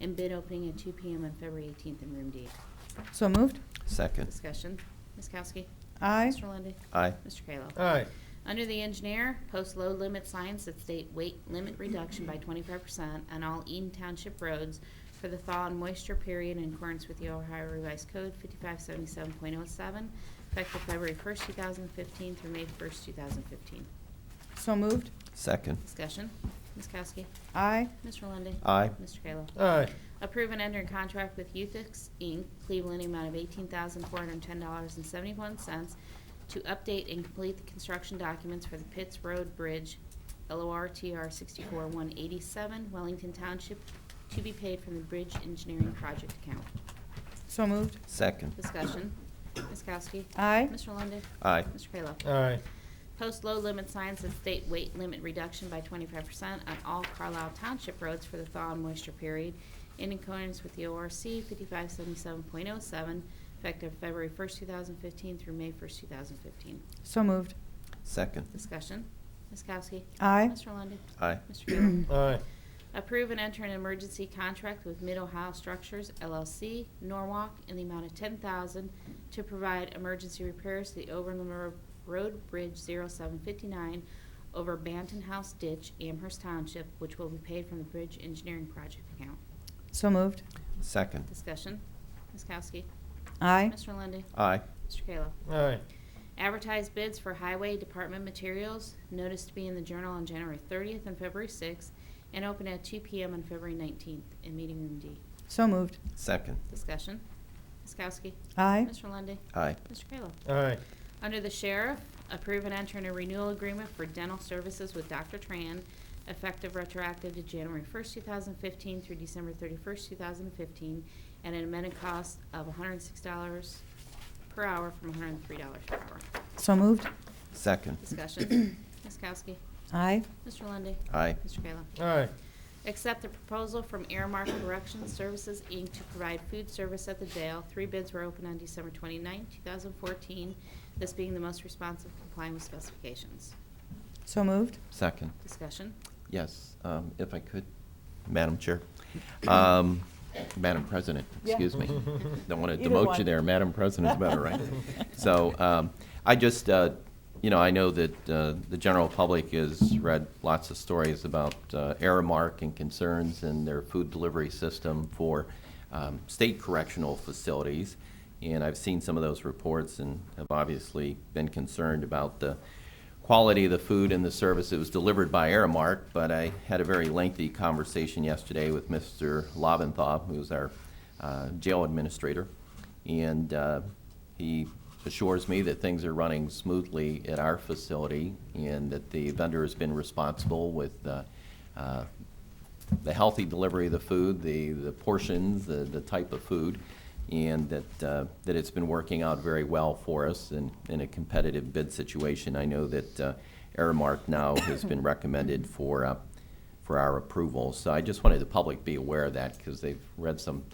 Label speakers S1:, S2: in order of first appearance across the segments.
S1: and bid opening at 2 PM on February 18th in Room D.
S2: So moved.
S3: Second.
S1: Discussion. Ms. Kowski?
S2: Aye.
S1: Mr. Lundy.
S3: Aye.
S1: Mr. Kayla?
S4: aye,
S1: Under the engineer, post load limit signs that state weight limit reduction by twenty-five percent on all Eaton Township roads for the thaw and moisture period in accordance with the Ohio Revised Code fifty-five seventy-seven point oh seven, effective February first, two thousand fifteen through May first, two thousand fifteen.
S2: So moved.
S3: Second.
S1: Discussion, Ms. Kowski,
S2: Aye.
S1: Mr. Lundey.
S3: Aye.
S1: Mr. Kayla.
S4: aye,
S1: Approve and enter in contract with Euthix Inc., Cleveland, in the amount of eighteen thousand four hundred and ten dollars and seventy-one cents to update and complete the construction documents for the Pitts Road Bridge, LORTR sixty-four one eighty-seven, Wellington Township, to be paid from the Bridge Engineering Project account.
S2: So moved.
S3: Second.
S1: Discussion. Ms. Kowski?
S2: Aye.
S1: Mr. Lundey?
S3: Aye.
S1: Mr. Kayla?
S4: aye,
S1: Post low limit signs and state weight limit reduction by twenty-five percent on all Carlisle Township roads for the thaw and moisture period in accordance with the ORC fifty-five seventy-seven point oh seven, effective February first, two thousand fifteen through May first, two thousand fifteen.
S2: So moved.
S3: Second.
S1: Discussion. Ms. Kowski?
S2: Aye.
S1: Mr. Lundey?
S3: Aye.
S1: Mr. Kayla?
S4: aye,
S1: Approve and enter an emergency contract with Mid-Ohio Structures LLC, Norwalk, in the amount of ten thousand to provide emergency repairs to the Overland Ro- Road Bridge 0759 over Banton House Ditch, Amherst Township, which will be paid from the Bridge Engineering Project account.
S2: So moved.
S3: Second.
S1: Discussion. Ms. Kowski.
S2: Aye.
S1: Mr. Lundey.
S3: Aye.
S1: Mr. Kayla.
S4: aye,
S1: Advertise bids for highway department materials, notice to be in the Journal on January 30th and February 6th, and open at 2 PM on February 19th in Meeting Room D.
S2: So moved.
S3: Second.
S1: Discussion. Ms. Kowski.
S2: Aye.
S1: Mr. Lundy,
S3: Aye.
S1: Mr. Kayla.
S4: aye,
S1: Under the sheriff, approve and enter in a renewal agreement for dental services with Dr. Tran, effective retroactive to January 1st, 2015 through December 31st, 2015, at an amended cost of $106 per hour from $103 per hour.
S2: So moved.
S3: Second.
S1: Discussion. Ms. Kowski.
S2: Aye.
S1: Mr. Lundy,
S3: Aye.
S1: Mr. Kayla.
S4: aye,
S1: Accept the proposal from Airmark Corrections Services, Inc. to provide food service at the jail. Three bids were opened on December 29, 2014, this being the most responsive complying with specifications.
S2: So moved.
S3: Second.
S1: Discussion.
S3: Yes, um, if I could, Madam Chair. Um, Madam President, excuse me. Don't want to
S2: Either
S3: demote you
S2: one.
S3: there. Madam President's better, right? So um, I just, uh, you know, I know that uh, the general public has read lots of stories about uh, Aramark and concerns and their food delivery system for um, state correctional facilities. And I've seen some of those reports and have obviously been concerned about the quality of the food and the service. It was delivered by Aramark, but I had a very lengthy conversation yesterday with Mr. Lobenthal, who's our uh, jail administrator, and uh, he assures me that things are running smoothly at our facility and that the vendor has been responsible with uh, uh, the healthy delivery of the food, the, the portions, the, the type of food, and that, uh, that it's been working out very well for us in, in a competitive bid situation. I know that uh, Aramark now has been recommended for, uh, for our approval. So I just wanted the public to be aware of that because they've read some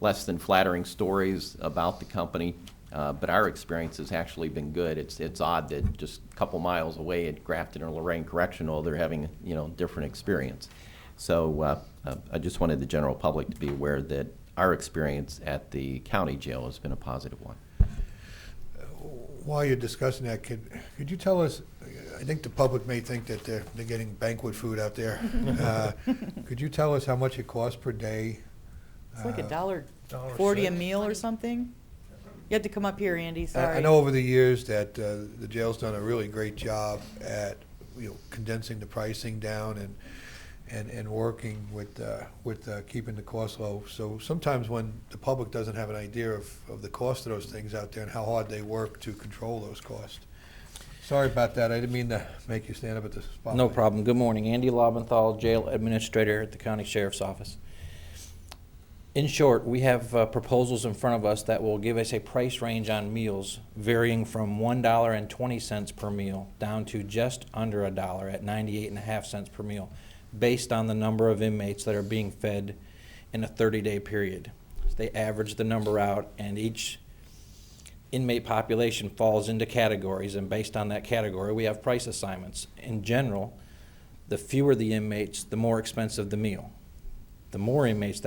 S3: less than flattering stories about the company. Uh, but our experience has actually been good. It's, it's odd that just a couple miles away at Grafton or Lorraine Correctional, they're having, you know, different experience. So uh, uh, I just wanted the general public to be aware that our experience at the county jail has been a positive one.
S5: While you're discussing that, could, could you tell us, I think the public may think that they're, they're getting banquet food out there. Uh, Could you tell us how much it costs per day?
S2: It's like a
S5: Uh,
S2: dollar
S4: Dollar
S2: forty a
S4: six.
S2: meal or something. You have to come up here, Andy,
S5: I-
S2: sorry.
S5: I know over the years that uh, the jail's done a really great job at, you know, condensing the pricing down and, and, and working with, uh, with uh, keeping the cost low. So sometimes when the public doesn't have an idea of, of the cost of those things out there and how hard they work to control those costs. Sorry about that, I didn't mean to make you stand up at the spotlight.
S6: No problem. Good morning. Andy Lobenthal, Jail Administrator at the County Sheriff's Office. In short, we have uh, proposals in front of us that will give us a price range on meals varying from $1.20 per meal down to just under a dollar at 98 and a half cents per meal, based on the number of inmates that are being fed in a 30-day period. They average the number out, and each inmate population falls into categories, and based on that category, we have price assignments. In general, the fewer the inmates, the more expensive the meal. The more inmates that